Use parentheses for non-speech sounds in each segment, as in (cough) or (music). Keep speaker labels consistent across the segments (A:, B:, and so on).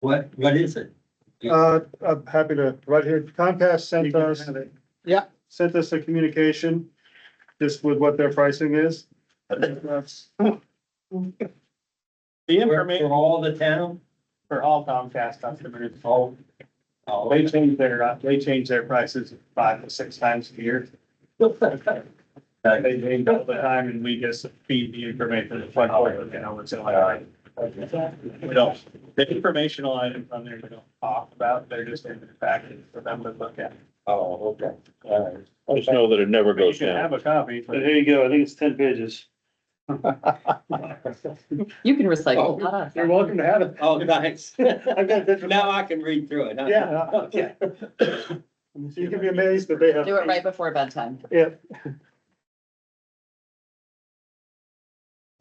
A: What, what is it?
B: Uh, I'm happy to, right here, Comcast sent us.
C: Yeah.
B: Sent us a communication, just with what their pricing is. That's
C: The
A: For
C: information
A: for all the town?
C: for all Comcast customers,
A: Oh. (laughs)
C: Well,
A: Oh,
C: They change their, uh, they change their prices five to six times a year.
A: Oh,
C: They change all the time and we just feed the information to the front door, you know, it's in like. uh, We don't, the informational items on there, we don't talk about, they're just in the package for them to look at.
A: oh, okay, (laughs) all right.
D: Just know that it never
C: You
D: goes
C: should
D: down.
C: have a copy.
B: But here you go, I think it's ten pages.
E: You can
A: Oh,
E: recycle. a lot of
B: You're
E: that.
B: welcome to have it.
A: Oh, thanks.
B: (laughs) I've got different.
A: Now I can read through it. huh?
B: (laughs) Yeah, (laughs)
A: Okay.
B: you can be amazed that they have.
E: Do it right before bedtime.
B: Yeah.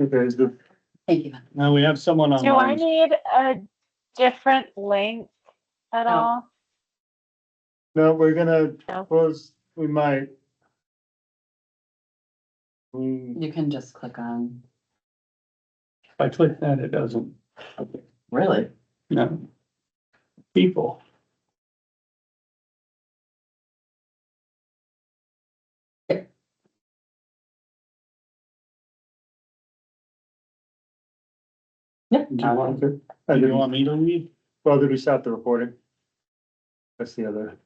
B: Okay, is the,
E: Thank you.
C: Now, we have someone
F: Do I
C: online.
F: need a different link at
E: Oh.
F: all?
B: no, we're gonna,
F: No.
B: close. we might. We,
E: You can just click on,
C: If I click that, it doesn't,
E: really?
C: no. People.
E: Yeah.
C: Do you want
B: to?
C: Do you want me to read?
B: Well, did we stop the recording? That's the other.